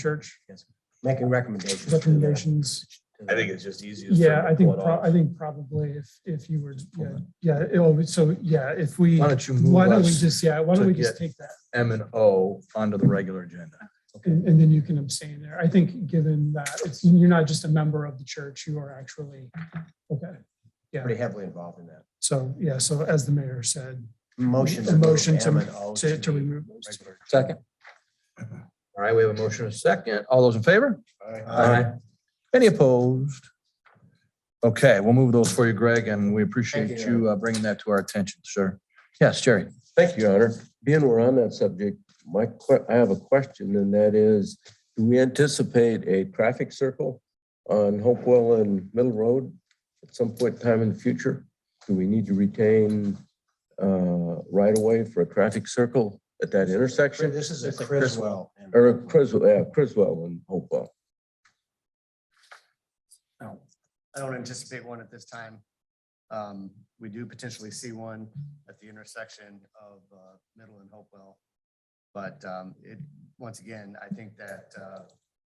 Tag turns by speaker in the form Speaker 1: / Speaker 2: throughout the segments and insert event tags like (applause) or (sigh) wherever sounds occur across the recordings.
Speaker 1: church
Speaker 2: making recommendations.
Speaker 1: recommendations.
Speaker 3: I think it's just easiest. for
Speaker 1: Yeah,
Speaker 3: him to
Speaker 1: I think,
Speaker 3: pull it
Speaker 1: pro-
Speaker 3: off.
Speaker 1: I think probably if, if you were, yeah,
Speaker 4: Okay.
Speaker 1: yeah, it'll, so, yeah, if we,
Speaker 4: Why don't you
Speaker 1: why
Speaker 4: move
Speaker 1: don't we
Speaker 4: us
Speaker 1: just, yeah, why don't
Speaker 4: to
Speaker 1: we just
Speaker 4: get-
Speaker 1: take that?
Speaker 4: M and O onto the regular agenda?
Speaker 1: And, and then you can abstain there. I think given that it's, you're not just a member of the church, you are actually, okay.
Speaker 2: Pretty heavily involved in that.
Speaker 1: So, yeah, so as the mayor said,
Speaker 2: Motion.
Speaker 1: A motion
Speaker 2: move
Speaker 1: to-
Speaker 2: M and O
Speaker 1: to, to
Speaker 2: be
Speaker 1: remove those.
Speaker 2: regular.
Speaker 4: Second. All right, we have a motion and a second. All those in favor?
Speaker 2: Aye.
Speaker 4: Any opposed? Okay, we'll move those for you, Greg, and we appreciate
Speaker 2: Thank you,
Speaker 4: you uh, bringing that to our attention, sir. Yes, Jerry.
Speaker 5: Thank you, Your Honor. Being we're on that subject, my, que- I have a question, and that is, do we anticipate a traffic circle on Hopewell and Middle Road at some point in time in the future? Do we need to retain uh, right away for a traffic circle at that intersection?
Speaker 2: This is a
Speaker 5: It's a
Speaker 2: Criswell. and-
Speaker 5: Or Criswell, yeah, Criswell and Hopewell.
Speaker 6: No, I don't anticipate one at this time. Um, We do potentially see one at the intersection of uh, Middle and Hopewell. But um, it, once again, I think that uh,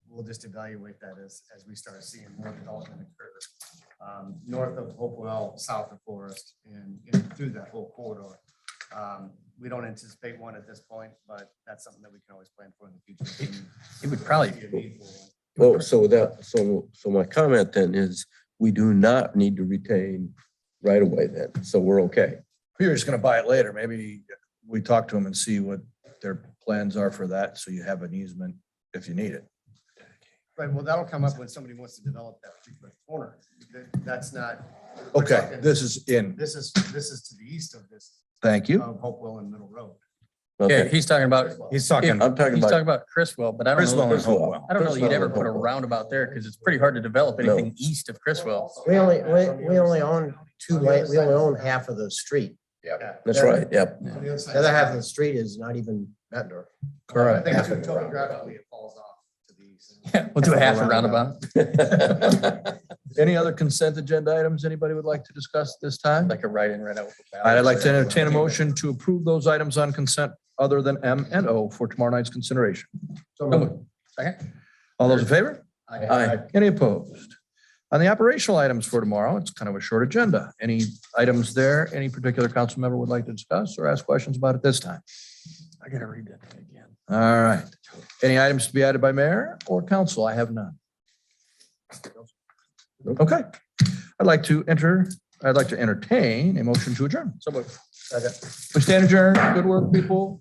Speaker 6: we'll just evaluate that as, as we start seeing more development occur um, north of Hopewell, south of Forest, and and through that whole corridor. Um, We don't anticipate one at this point, but that's something that we can always plan for in the future.
Speaker 3: It would probably,
Speaker 6: Be a need for one.
Speaker 5: Well, Oh, so that, so, so my comment then is, we do not need to retain right away then, so we're okay.
Speaker 4: We were just going to buy it later. Maybe we talk to them and see what their plans are for that, so you have an easement if you need it.
Speaker 6: Right, well, that'll come up when somebody wants to develop that particular corner. That- That's not. we're
Speaker 4: Okay,
Speaker 6: talking-
Speaker 4: this is in.
Speaker 6: This is, this is to the east of this,
Speaker 4: Thank you. Uh,
Speaker 6: of Hopewell and Middle Road.
Speaker 3: yeah,
Speaker 5: Okay,
Speaker 3: he's talking about, he's talking,
Speaker 5: I'm talking
Speaker 3: he's talking
Speaker 5: about
Speaker 3: about Chriswell, but I don't
Speaker 4: Criswell
Speaker 3: know.
Speaker 4: and Hopewell.
Speaker 3: I don't know that you'd
Speaker 5: Criswell
Speaker 3: ever
Speaker 5: and
Speaker 3: put a
Speaker 5: Hopewell.
Speaker 3: roundabout there because it's pretty hard to develop
Speaker 5: No.
Speaker 3: anything east of Chriswell.
Speaker 2: We only, we, we only own two lane, we only own half of the street.
Speaker 5: That's right, yep.
Speaker 6: On the other
Speaker 2: The
Speaker 6: side.
Speaker 2: other half of the street is not even Ventnor.
Speaker 6: I
Speaker 4: Correct.
Speaker 6: think too, topographically, it falls off to the east.
Speaker 3: Yeah, we'll do a half a roundabout. (laughs)
Speaker 4: Any other consent agenda items anybody would like to discuss at this time?
Speaker 3: Like a right in, right out.
Speaker 4: All right, I'd like to entertain a motion to approve those items on consent other than M and O for tomorrow night's consideration.
Speaker 3: Second.
Speaker 4: All those in favor?
Speaker 5: Aye.
Speaker 4: Any opposed? On the operational items for tomorrow, it's kind of a short agenda. Any items there, any particular council member would like to discuss or ask questions about at this time?
Speaker 3: I gotta read that thing again.
Speaker 4: All right. Any items to be added by mayor or council? I have none. Okay. I'd like to enter, I'd like to entertain a motion to adjourn. So moved. We stand adjourned. Good work, people.